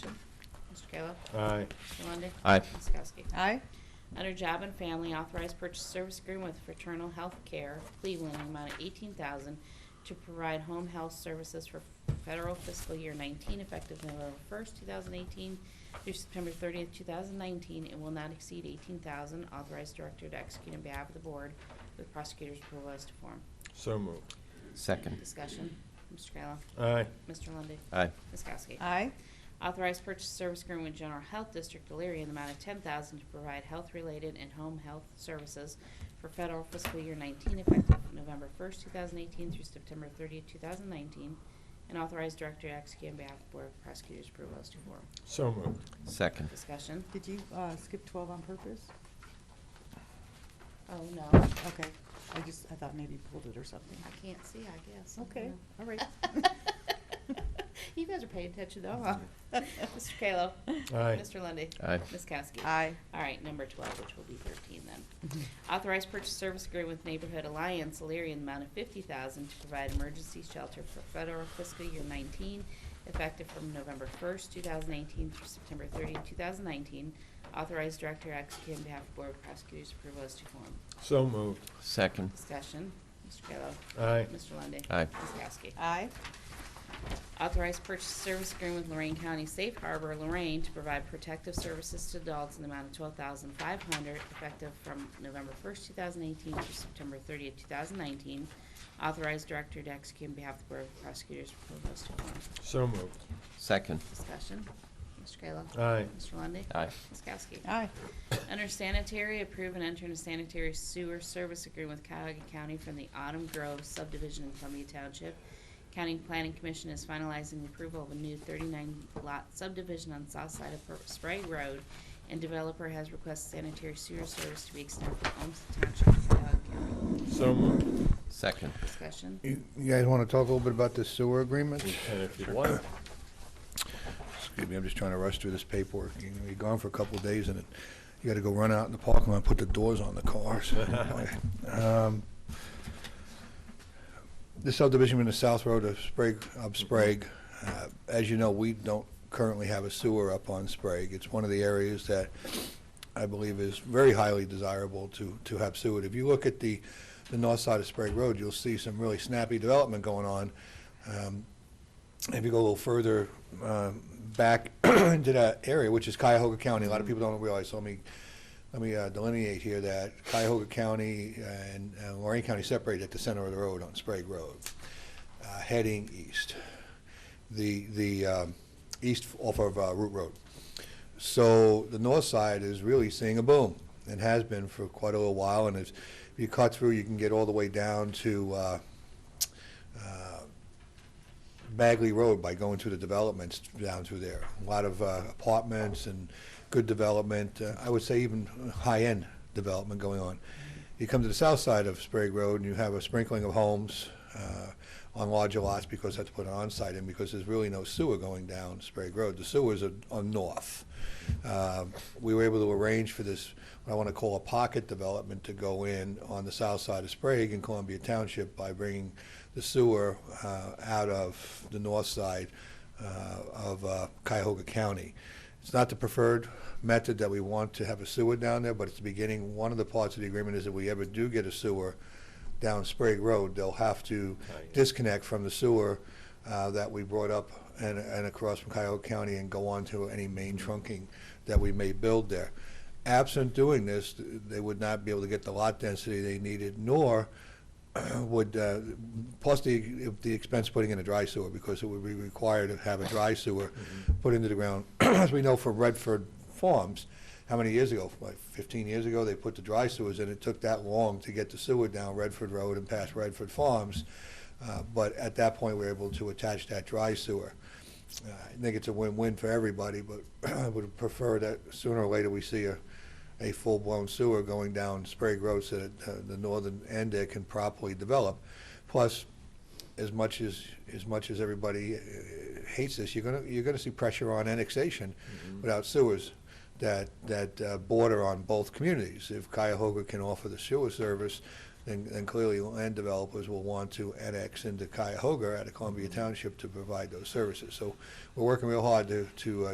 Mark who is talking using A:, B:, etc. A: Kayla.
B: Aye.
A: Mr. Lundey.
C: Aye.
A: Ms. Kowski.
D: Aye.
A: Under Job and Family, authorized purchase service agreement with Fraternal Health Care Cleveland in the amount of eighteen thousand to provide home health services for federal fiscal year nineteen effective November first, two thousand eighteen through September thirtieth, two thousand nineteen, and will not exceed eighteen thousand. Authorized director to execute on behalf of the board with prosecutor's approval as to form.
B: So moved.
C: Second.
A: Discussion. Uh, Mr. Kayla.
B: Aye.
A: Mr. Lundey.
C: Aye.
A: Ms. Kowski.
D: Aye.
A: Authorized purchase service agreement with General Health District Elyria in the amount of ten thousand to provide health-related and home health services for federal fiscal year nineteen effective November first, two thousand eighteen through September thirtieth, two thousand nineteen, and authorized director to execute on behalf of Board of Prosecutors' approval as to form.
B: So moved.
C: Second.
A: Discussion?
D: Did you uh, skip 12 on purpose?
A: Oh, no.
D: Okay. I just, I thought maybe you pulled it or something.
A: I can't see, I guess. I don't
D: Okay,
A: know.
D: all right.
A: You guys are paying attention though, huh? Mr. Kayla.
B: Aye.
A: Mr. Lundy,
C: Aye.
A: Ms. Kowski.
D: Aye.
A: All right, number 12, which will be 13 then. Authorized purchase service agreement with Neighborhood Alliance, Illyria, in the amount of 50000 to provide emergency shelter for federal fiscal year 19, effective from November 1st, 2018 through September 30, 2019. Authorized director to execute on behalf of Board of Prosecutors' approval as to form.
B: So moved.
C: Second.
A: Discussion, Mr. Kayla.
B: Aye.
A: Mr. Lundey.
C: Aye.
A: Ms. Kowski.
D: Aye.
A: Authorized purchase service agreement with Lorraine County Safe Harbor, Lorraine, to provide protective services to adults in the amount of twelve thousand five hundred, effective from November first, two thousand eighteen through September thirtieth, two thousand nineteen. Authorized director to execute on behalf of the Board of Prosecutors' proposed form.
B: So moved.
C: Second.
A: Discussion. Mr. Kayla.
B: Aye.
A: Mr. Lundey.
C: Aye.
A: Ms. Kowski.
D: Aye.
A: Under sanitary, approve and enter into sanitary sewer service agreement with Cuyahoga County from the Autumn Grove subdivision in Columbia Township. County Planning Commission is finalizing the approval of a new thirty-nine lot subdivision on south side of Purpose Spray Road, and developer has requested sanitary sewer service to be extended from Olmsted Township to Cuyahoga County.
B: So moved.
C: Second.
A: Discussion?
E: You you guys want to talk a little bit about the sewer agreement?
B: And if you want.
E: Excuse me, I'm just trying to rush through this paperwork. You know, you're gone for a couple of days and it- you got to go run out in the parking lot and put the doors on the cars. Um, The subdivision in the South Road of Sprague, of Sprague, uh, as you know, we don't currently have a sewer up on Sprague. It's one of the areas that I believe is very highly desirable to, to have sewer. If you look at the, the north side of Sprague Road, you'll see some really snappy development going on. Um, if you go a little further um, back into that area, which is Cuyahoga County, a lot of people don't realize, so let me, let me uh, delineate here that Cuyahoga County and uh, Lorraine County separate at the center of the road on Sprague Road, uh, heading east, the, the um, east off of uh, Root Road. So the north side is really seeing a boom, and has been for quite a little while, and if you cut through, you can get all the way down to uh, uh, Bagley Road by going through the developments down through there. A lot of uh, apartments and good development, uh, I would say even high-end development going on. You come to the south side of Sprague Road and you have a sprinkling of homes uh, on larger lots because that's put an on-site in because there's really no sewer going down Sprague Road. The sewers are on north. Uh, We were able to arrange for this, what I want to call a pocket development to go in on the south side of Sprague in Columbia Township by bringing the sewer uh, out of the north side uh, of uh, Cuyahoga County. It's not the preferred method that we want to have a sewer down there, but it's the beginning. One of the parts of the agreement is if we ever do get a sewer down Sprague Road, they'll have to
B: Right.
E: disconnect from the sewer uh, that we brought up and, and across from Cuyahoga County and go on to any main trunking that we may build there. Absent doing this, th- they would not be able to get the lot density they needed, nor would, uh, plus the, if the expense putting in a dry sewer, because it would be required to have a dry sewer put into the ground. As we know from Redford Farms, how many years ago, like 15 years ago, they put the dry sewers in. It took that long to get the sewer down Redford Road and past Redford Farms. Uh, But at that point, we were able to attach that dry sewer. Uh, I think it's a win-win for everybody, but I would prefer that sooner or later we see a, a full-blown sewer going down Sprague Road so that uh, the northern end there can properly develop. Plus, as much as, as much as everybody uh, hates this, you're gonna, you're gonna see pressure on annexation without sewers that, that uh, border on both communities. If Cuyahoga can offer the sewer service, then, then clearly land developers will want to annex into Cuyahoga out of Columbia Township to provide those services. So we're working real hard to, to uh,